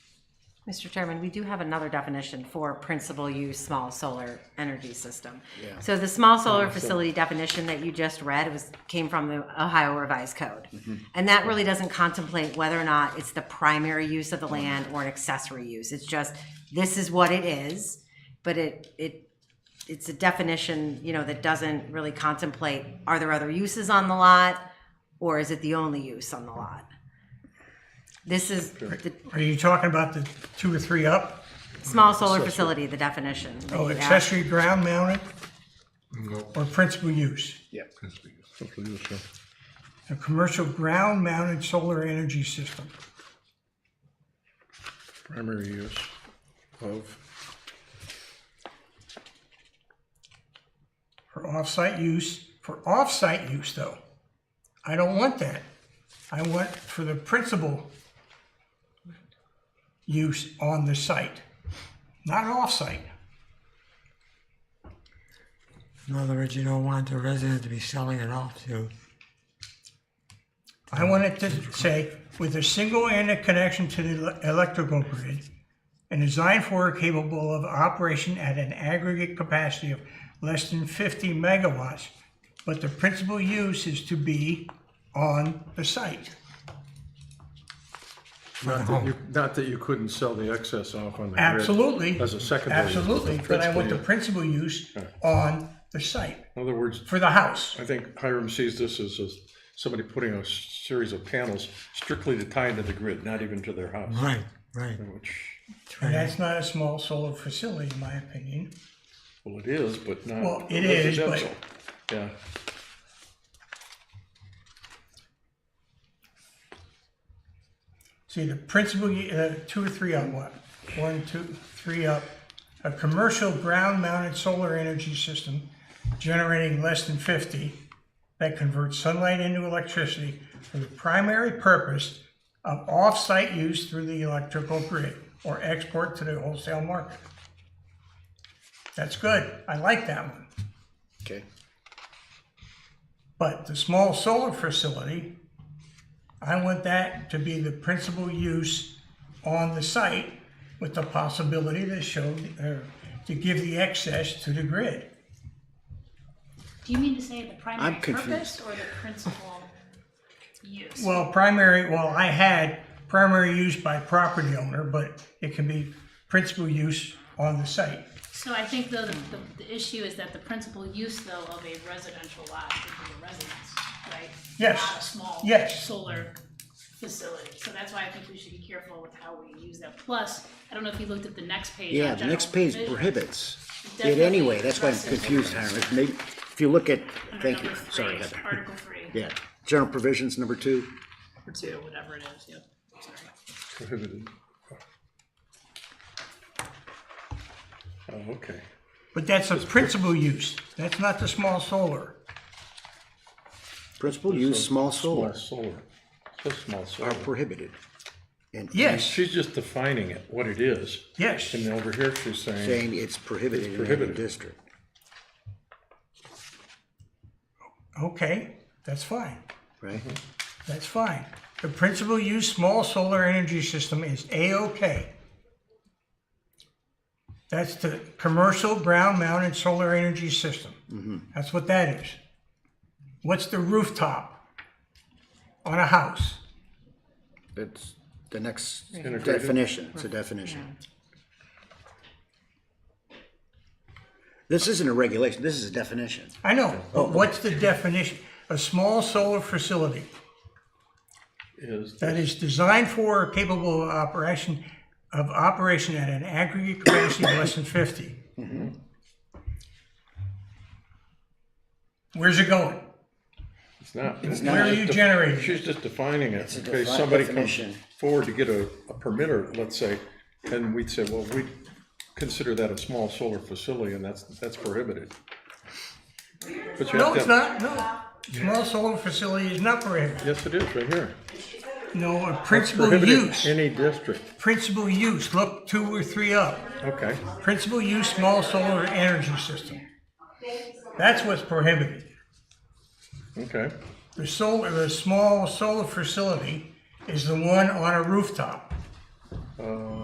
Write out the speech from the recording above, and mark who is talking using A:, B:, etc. A: Mr. Chairman, we do have another definition for principal use small solar energy system. So the small solar facility definition that you just read was, came from the Ohio Revised Code. And that really doesn't contemplate whether or not it's the primary use of the land or an accessory use. It's just, this is what it is, but it, it, it's a definition, you know, that doesn't really contemplate, are there other uses on the lot? Or is it the only use on the lot? This is the
B: Are you talking about the two or three up?
A: Small solar facility, the definition. that
B: Oh,
A: you asked.
B: accessory ground mounted or principal use?
C: Yeah.
B: A commercial ground mounted solar energy system.
C: Primary use of,
B: for off-site use, for off-site use though. I don't want that. I want for the principal use on the site, not off-site.
D: In other words, you don't want the resident to be selling it off to,
B: I want it to say, with a single internet connection to the ele- electrical grid and designed for or capable of operation at an aggregate capacity of less than 50 megawatts, but the principal use is to be on the site.
C: not that you, not that you couldn't sell the excess off on the grid.
B: Absolutely.
C: As a secondary. use, but the
B: Absolutely, but I
C: principal
B: want the
C: use-
B: principal use on the site
C: In other words,
B: for the house.
C: I think Hiram sees this as, as somebody putting a series of panels strictly to tie into the grid, not even to their house,
D: right, right.
C: which,
B: And that's not a small solar facility, in my opinion.
C: well, it is, but not.
B: Well, it is, but-
C: residential. Yeah,
B: See, the principal, u- uh, two or three up, what? One, two, three up. A commercial ground-mounted solar energy system generating less than 50 that converts sunlight into electricity for the primary purpose of off-site use through the electrical grid or export to the wholesale market. That's good. I like that one.
E: Okay.
B: But the small solar facility, I want that to be the principal use on the site with the possibility to show, or to give the excess to the grid.
F: Do you mean to say the primary
E: I'm confused.
F: purpose or the principal use?
B: Well, primary, well, I had primary use by property owner, but it can be principal use on the site.
F: So I think though, the, the, the issue is that the principal use though of a residential lot would be a residence, right?
B: Yes.
F: Not a small.
B: Yes.
F: Solar facility, so that's why I think we should be careful with how we use that, plus, I don't know if you looked at the next page.
E: Yeah,
F: on
E: the next
F: general
E: page
F: provisions.
E: prohibits it
F: Definitely
E: anyway. That's why I'm
F: addresses
E: confused,
F: it.
E: Hiram. If may- If you look at,
F: Under
E: thank you,
F: number three,
E: sorry,
F: it's
E: Heather.
F: Article three.
E: Yeah, general provisions, number two.
F: Or two, whatever it is, yep, sorry.
C: prohibited. Oh, okay.
B: But that's a principal use. That's not the small solar.
E: Principal use, small
C: Small
E: solar
C: solar, just small solar.
E: are prohibited. And
B: Yes,
C: She's just defining it, what it is.
B: yes.
C: And over here, she's saying,
E: saying it's prohibited in every
C: prohibited.
E: district.
B: Okay, that's fine.
E: Right?
B: That's fine. The principal use small solar energy system is A-OK. That's the commercial ground mounted solar energy system. That's what that is. What's the rooftop on a house?
E: That's the next
C: Integrated.
E: definition. It's a definition. This isn't a regulation. This is a definition.
B: I know, but what's the definition? A small solar facility
C: is,
B: that is designed for or capable of operation, of operation at an aggregate capacity of less than 50. Where's it going?
C: it's not.
B: Where are you generating?
C: She's just defining it.
E: a
C: In case
E: defi-
C: somebody comes
E: definition.
C: forward to get a, a permitter, let's say, and we'd say, well, we consider that a small solar facility and that's, that's prohibited. But you
B: No,
C: have to-
B: it's not, no. Small solar facility is not prohibited.
C: Yes, it is, right here.
B: No, a principal
C: Prohibited
B: use,
C: any district.
B: principal use, look two or three up.
C: Okay,
B: Principal use, small solar energy system. That's what's prohibited.
C: okay.
B: The solar, the small solar facility is the one on a rooftop.